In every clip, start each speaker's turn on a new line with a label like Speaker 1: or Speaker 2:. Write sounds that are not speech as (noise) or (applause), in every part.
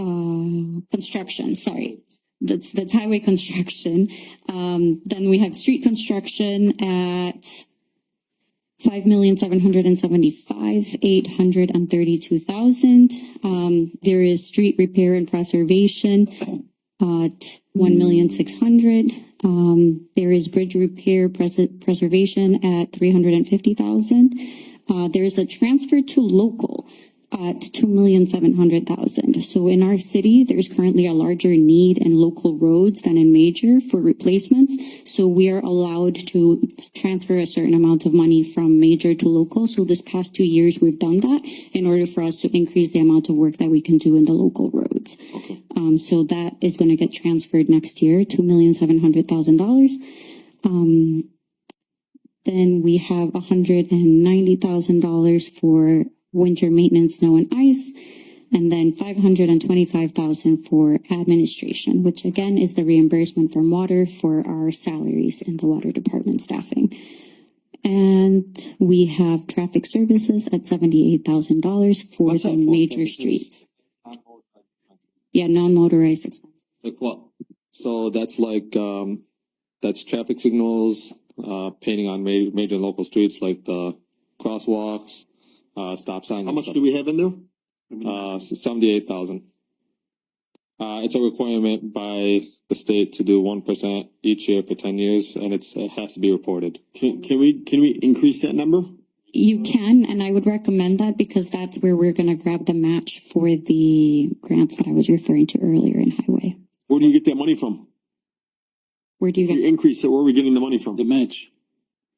Speaker 1: um, construction, sorry. That's, that's highway construction. Um, then we have street construction at five million, seven hundred and seventy-five, eight hundred and thirty-two thousand. Um, there is street repair and preservation at one million six hundred. Um, there is bridge repair pres- preservation at three hundred and fifty thousand. Uh, there is a transfer to local at two million seven hundred thousand. So in our city, there's currently a larger need in local roads than in major for replacements. So we are allowed to transfer a certain amount of money from major to local. So this past two years, we've done that in order for us to increase the amount of work that we can do in the local roads. Um, so that is going to get transferred next year, two million seven hundred thousand dollars. Then we have hundred and ninety thousand dollars for winter maintenance, snow and ice. And then five hundred and twenty-five thousand for administration, which again is the reimbursement from water for our salaries in the water department staffing. And we have traffic services at seventy-eight thousand dollars for
Speaker 2: What's
Speaker 1: the
Speaker 2: that for,
Speaker 1: major
Speaker 2: services?
Speaker 1: streets. Yeah, non-motorized expenses.
Speaker 2: Like what? So that's like, um, that's traffic signals, uh, painting on ma- major and local streets like the crosswalks, uh, stop signs.
Speaker 3: How
Speaker 2: and
Speaker 3: much
Speaker 2: stuff.
Speaker 3: do we have in there?
Speaker 2: Uh, seventy-eight thousand. Uh, it's a requirement by the state to do one percent each year for ten years, and it's, it has to be reported.
Speaker 3: Can, can we, can we increase that number?
Speaker 1: You can, and I would recommend that because that's where we're gonna grab the match for the grants that I was referring to earlier in highway.
Speaker 3: Where do you get that money from?
Speaker 1: Where do you
Speaker 3: If you
Speaker 1: get,
Speaker 3: increase it, where are we getting the money from? No,
Speaker 4: match.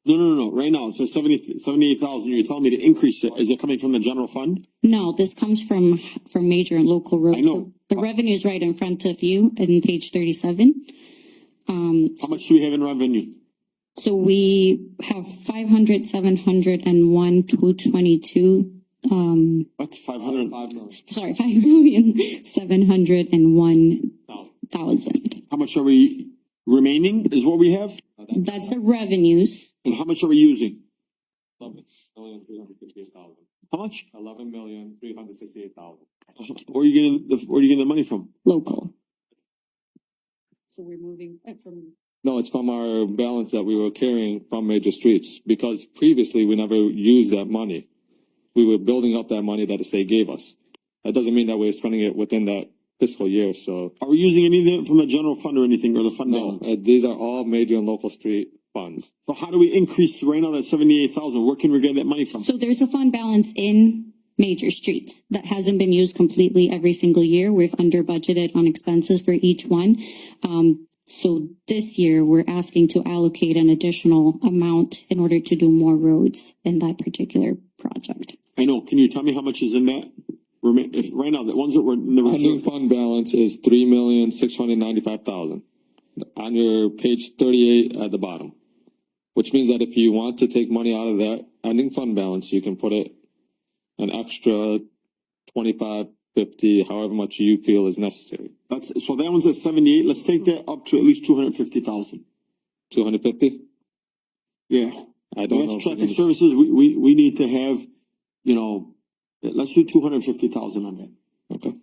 Speaker 3: no, no, no, right now, it says seventy, seventy-eight thousand, you're telling me to increase it, is it coming from the general fund?
Speaker 1: no, this comes from, from major and local roads.
Speaker 3: I know.
Speaker 1: The revenue is right in front of you in page thirty-seven.
Speaker 3: How much do we have in revenue?
Speaker 1: So we have five hundred, seven hundred and one, two twenty-two, um,
Speaker 3: What, five hundred?
Speaker 1: sorry, (laughs) five million, seven hundred and one thousand.
Speaker 3: How much are we remaining is what we have,
Speaker 1: That's the revenues.
Speaker 3: and how much are we using? How much?
Speaker 2: Eleven million, three hundred sixty-eight thousand.
Speaker 3: Where are you getting, the where are you getting the money from?
Speaker 1: local. So we're moving uh, from.
Speaker 2: No, it's from our balance that we were carrying from major streets, because previously we never used that money. We were building up that money that the state gave us. That doesn't mean that we're spending it within that fiscal year, so.
Speaker 3: Are we using anything from the general fund or anything, or the fund
Speaker 2: No,
Speaker 3: balance?
Speaker 2: uh, these are all major and local street funds.
Speaker 3: So how do we increase right now that seventy-eight thousand, where can we get that money from?
Speaker 1: So there's a fund balance in major streets that hasn't been used completely every single year. We've under budgeted on expenses for each one. Um, so this year, we're asking to allocate an additional amount in order to do more roads in that particular project.
Speaker 3: I know, can you tell me how much is in that? Rema- if, right now, the ones that were in the
Speaker 2: Ending
Speaker 3: reserve,
Speaker 2: fund balance is three million, six hundred ninety-five thousand. On your page thirty-eight at the bottom. Which means that if you want to take money out of that ending fund balance, you can put it an extra twenty-five, fifty, however much you feel is necessary.
Speaker 3: that's, so that one's at seventy-eight, let's take that up to at least two hundred fifty thousand.
Speaker 2: Two hundred fifty?
Speaker 3: Yeah,
Speaker 2: I don't know.
Speaker 3: that's
Speaker 2: if we're
Speaker 3: traffic
Speaker 2: gonna-
Speaker 3: services, we, we, we need to have, you know, let's do two hundred fifty thousand on that.
Speaker 2: Okay,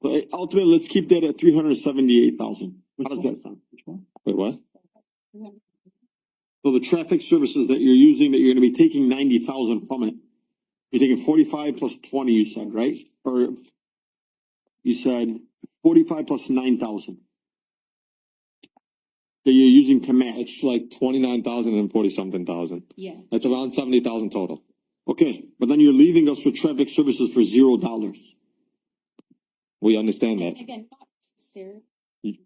Speaker 3: But ultimately, let's keep that at three hundred seventy-eight thousand. How does that sound?
Speaker 2: wait, what?
Speaker 3: So the traffic services that you're using, that you're gonna be taking ninety thousand from it. You're taking forty-five plus twenty, you said, right? Or you said forty-five plus nine thousand. That you're using to match.
Speaker 2: It's like twenty-nine thousand and forty-something thousand.
Speaker 1: Yeah.
Speaker 2: That's around seventy thousand total.
Speaker 3: Okay, but then you're leaving us with traffic services for zero dollars.
Speaker 2: We understand that.
Speaker 1: Again, not necessarily.
Speaker 3: Hmm.
Speaker 2: Y-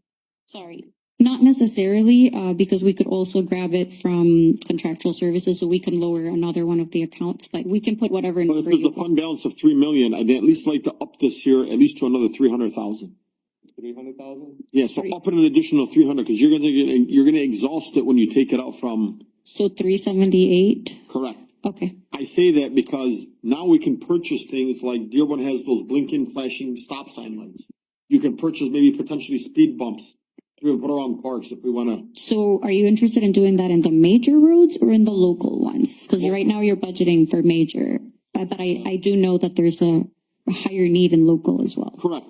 Speaker 1: Sorry, not necessarily, uh, because we could also grab it from contractual services, so we can lower another one of the accounts, but we can put whatever
Speaker 3: But if
Speaker 1: number
Speaker 3: there's
Speaker 1: you
Speaker 3: a
Speaker 1: want.
Speaker 3: fund balance of three million, I'd at least like to up this year at least to another three hundred thousand.
Speaker 2: Three hundred thousand?
Speaker 3: Yeah, so
Speaker 1: Three.
Speaker 3: up an additional three hundred, cause you're gonna, get- you're gonna exhaust it when you take it out from,
Speaker 1: So three seventy-eight,
Speaker 3: correct?
Speaker 1: okay,
Speaker 3: I say that because now we can purchase things like Dearborn has those blinking flashing stop sign lights. You can purchase maybe potentially speed bumps. We would put around parks if we wanna,
Speaker 1: so are you interested in doing that in the major roads or in the local ones? Cause right now you're budgeting for major, but, but I, I do know that there's a higher need in local as well.
Speaker 3: correct,